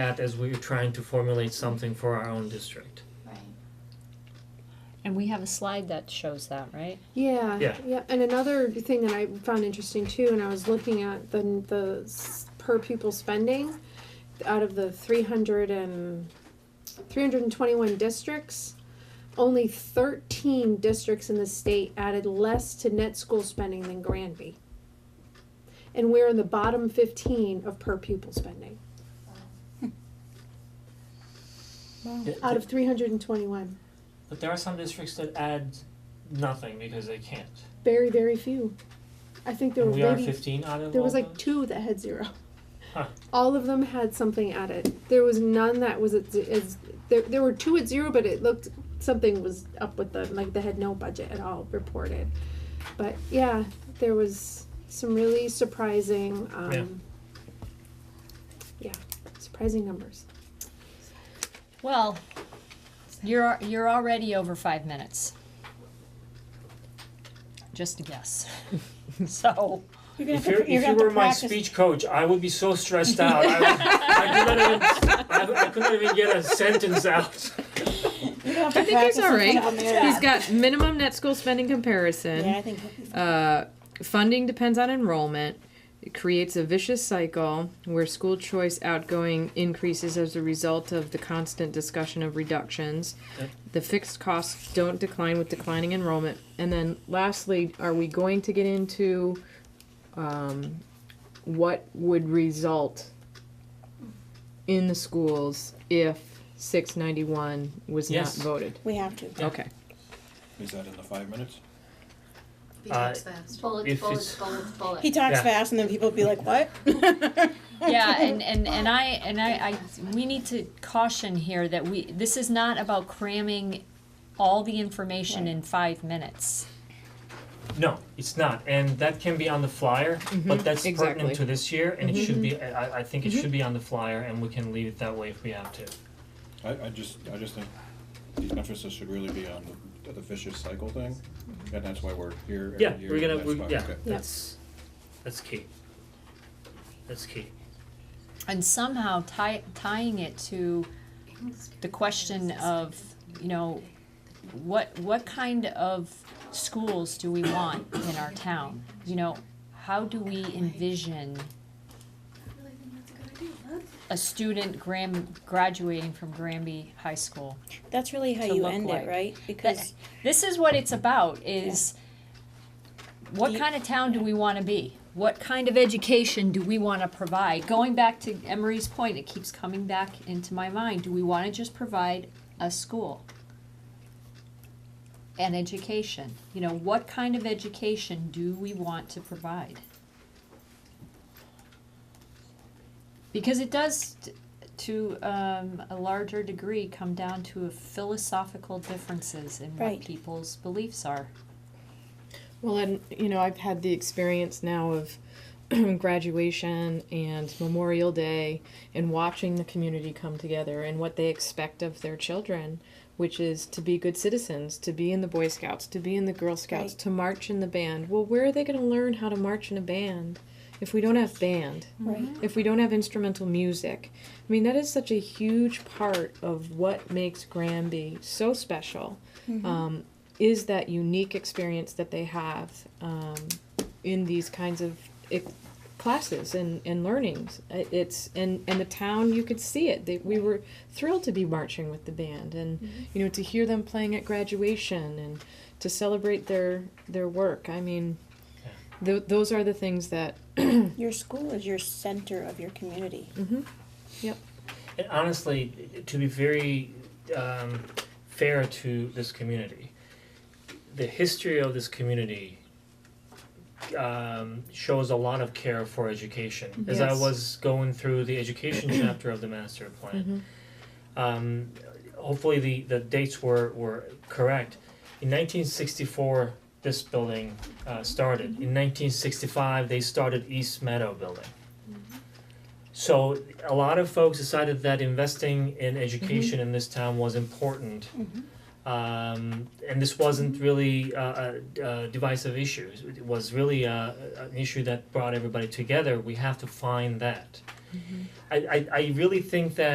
at as we were trying to formulate something for our own district. Right. And we have a slide that shows that, right? Yeah, Yeah. And another thing that I found interesting too, and I was looking at the the s- per pupil spending out of the 300 and 321 districts, only 13 districts in the state added less to net school spending than Granby. And we're in the bottom 15 of per pupil spending out of 321. But there are some districts that add nothing because they can't. Very, very few. I think there And were we are maybe fifteen out of There all was like those? two that had zero. Huh. All of them had something at it. There was none that was at ze- is there. There were two at zero, but it looked something was up with them. Like they had no budget at all reported. But yeah, there was some really surprising. Um, yeah. surprising numbers. Well, you're, you're already over five minutes. Just a guess. So, You're gonna If have to, you you're gonna if you have to were my practice. speech coach, I would be so stressed out. I would, I could not even I, I could not even get a sentence out. You're gonna have to I think he's practice in all front right. of a mirror. He's got minimum net school spending Yeah, comparison. I think Uh, funding depends on enrollment. It creates a vicious cycle where school choice outgoing increases as a result of the constant discussion of reductions. Yep. The fixed costs don't decline with declining enrollment. And then, lastly, are we going to get into um, what would result in the schools if 691 was Yes. not voted? we have to. Yeah. Okay. Is that in the five minutes? He Uh, talks fast. If Bullets, it's- bullets, bullets, bullets. He talks Yeah. fast, and then people be like, "What?" yeah, and, and, and I, and I, I, we need to caution here that we, this is not about cramming all the information in five minutes. No, it's not, and that can be on the flyer, but that's pertinent exactly. to this year, and it should be, I I- I think it should be on the flyer, and we can leave it that way if we have to. I, I just, I just think the emphasis should really be on the, the vicious cycle thing, and that's why we're here every Yeah, year. we're gonna, that's we, why- yeah, okay. that's, that's key. That's key. And somehow tie, tying it to the question of, you know, what, what kind of schools do we want in our town? You know, how do we envision a student gram, graduating from Granby High School? That's really how To you look end like. it, right? Because This is what it's about, is what Do you- kind of town do we wanna be? What kind of education do we wanna provide? Going back to Emery's point, it keeps coming back into my mind, do we wanna just provide a school? An education, you know, what kind of education do we want to provide? Because it does, t- to um, a larger degree, come down to philosophical differences in what Right. people's beliefs are. Well, and you know, I've had the experience now of graduation and Memorial Day and watching the community come together and what they expect of their children, which is to be good citizens, to be in the Boy Scouts, to be in the Girl Scouts, Right. to march in the band. Well, where are they going to learn how to march in a band if we don't have band? right. if we don't have instrumental music. I mean, that is such a huge part of what makes Granby so special. Um, is that unique experience that they have um, in these kinds of ex- classes and, and learnings? I- It's and and the town you could see it. They, we were thrilled to be marching with the band, and you know to hear them playing at graduation and to celebrate their their work. I mean. Th- those are the things that Your school is your center of your community. And honestly, to be very um, fair to this community, the history of this community um, shows a lot of care for education. As I Yes. was going through the education chapter of the master plan, um, hopefully the, the dates were, were correct. In 1964, this building uh, started. In 1965, they started East Meadow Building. So a lot of folks decided that investing in education in this town was important. Um, and this wasn't really uh, a, a divisive issue. It was really uh an issue that brought everybody together. We have to find that. I, I, I really think that